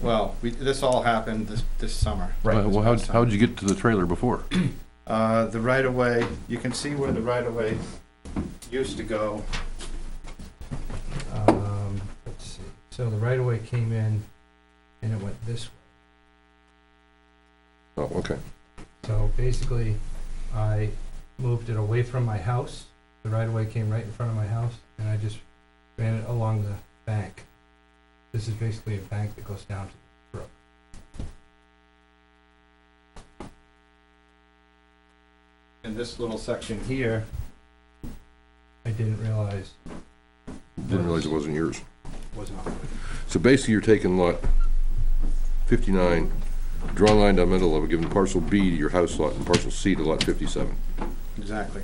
Well, we, this all happened this, this summer. Right. Well, how'd, how'd you get to the trailer before? Uh, the right of way, you can see where the right of way used to go. Um, let's see, so the right of way came in and it went this way. Oh, okay. So basically, I moved it away from my house. The right of way came right in front of my house and I just ran it along the bank. This is basically a bank that goes down to the brook. In this little section here, I didn't realize Didn't realize it wasn't yours. was not. So basically, you're taking lot fifty-nine, draw a line down the middle of it, giving parcel B to your house lot and parcel C to lot fifty-seven. Exactly.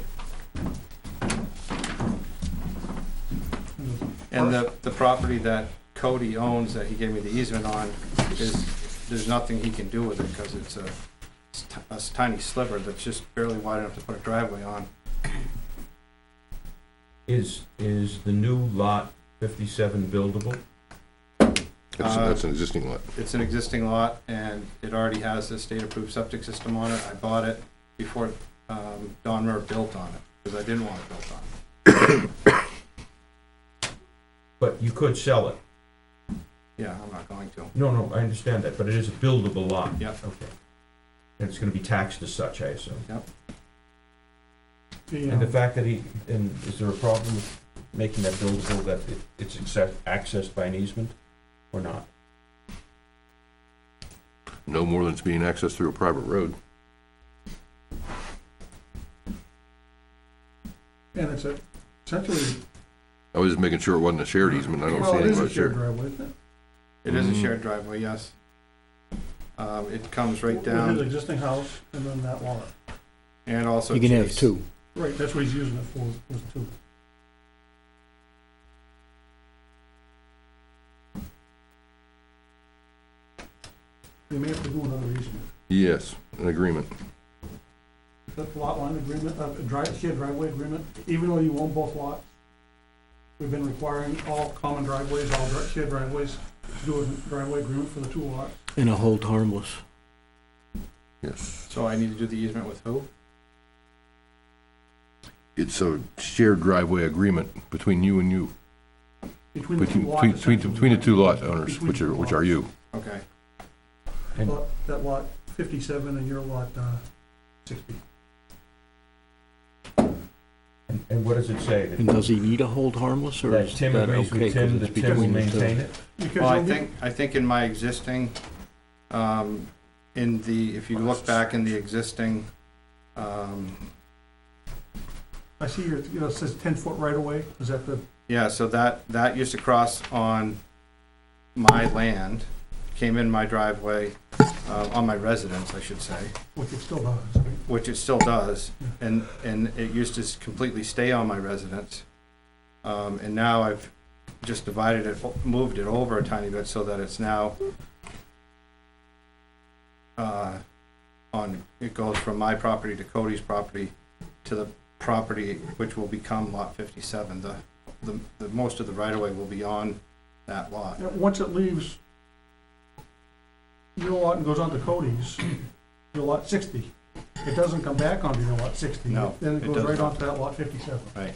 And the, the property that Cody owns that he gave me the easement on is, there's nothing he can do with it because it's a, it's ti- a tiny sliver that's just barely wide enough to put a driveway on. Is, is the new lot fifty-seven buildable? That's, Uh, that's an existing lot. It's an existing lot and it already has a state-approved septic system on it. I bought it before, um, Don Murr built on it because I didn't want it built on. But you could sell it. Yeah, I'm not going to. No, no, I understand that, but it is a buildable lot. Yeah. Okay. And it's gonna be taxed as such, I assume. And the The, fact that he, and is there a problem with making that buildable, that it- it's acce- accessed by an easement or not? No more than it's being accessed through a private road. uh, And it's a- essentially, I was just making sure it wasn't a shared easement. I don't see well, it anything is a about shared shared. driveway, isn't it? It is a Mm. shared driveway, yes. Um, it comes right With his down existing house and then that lot. and also. You can have Chase. two. Right, that's what he's using it for, was two. They may have to do another easement. Yes, an agreement. That lot line agreement, uh, drive, shared driveway agreement, even though you own both lots, we've been requiring all common driveways, all dri- shared driveways, to do a driveway agreement for the two lots. And a hold harmless. Yes. So I need to do the easement with who? It's a shared driveway agreement between you and you, Between the two between, lots. between, between the- essentially. between the two lot owners, Between which the are, two which are lots. you. Okay, Lot- That lot fifty-seven and your lot, uh, sixty. And, and what does it say? That- And does he need a hold harmless or That is that Tim agrees okay? with 'cause Tim, it's that Tim will between the two? maintain it? Because well, I you'll be- think, I think in my existing, um, in the, if you look back in the existing, um, I see your, you know, it says ten-foot right-of-way, is that the, yeah, so that, that used to cross on my land, came in my driveway, uh, on my residence, I should say, which it still does, right? which it still does, and, and it used to s- completely stay on my residence. Um, and now I've just divided it, moved it over a tiny bit so that it's now, uh, on, it goes from my property to Cody's property to the property which will become lot fifty-seven. The, the, the, most of the right-of-way will be on that lot. And once it leaves your lot and goes on to Cody's, your lot sixty, it doesn't come back onto your lot sixty. No, Then it it goes does right not. onto that lot fifty-seven. Right.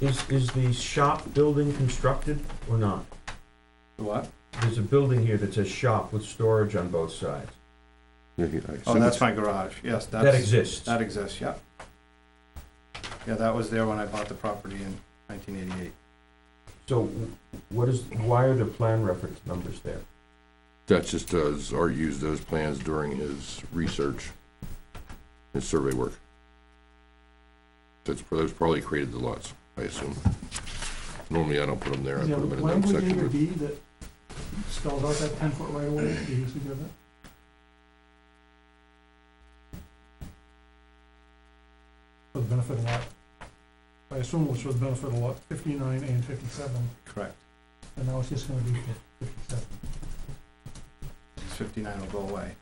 Is, is the shop building constructed or not? The What? There's a building here that says shop with storage on both sides. Yeah, yeah, I Oh, assume that's it's- my garage. Yes, that's. That exists. That exists, yeah. Yeah, that was there when I bought the property in nineteen eighty-eight. So w- what is, why are the plan reference numbers there? That's just does, Art used those plans during his research, his survey work. That's, those probably created the lots, I assume. Normally, I don't put them there, I Is put there them in another language in your section, deed that spells out that ten-foot right-of-way, do you usually give it? For the benefit of lot, I assume it was for the benefit of lot fifty-nine and fifty-seven, Correct. and now it's just gonna be fifty-seven. Fifty-nine will go away.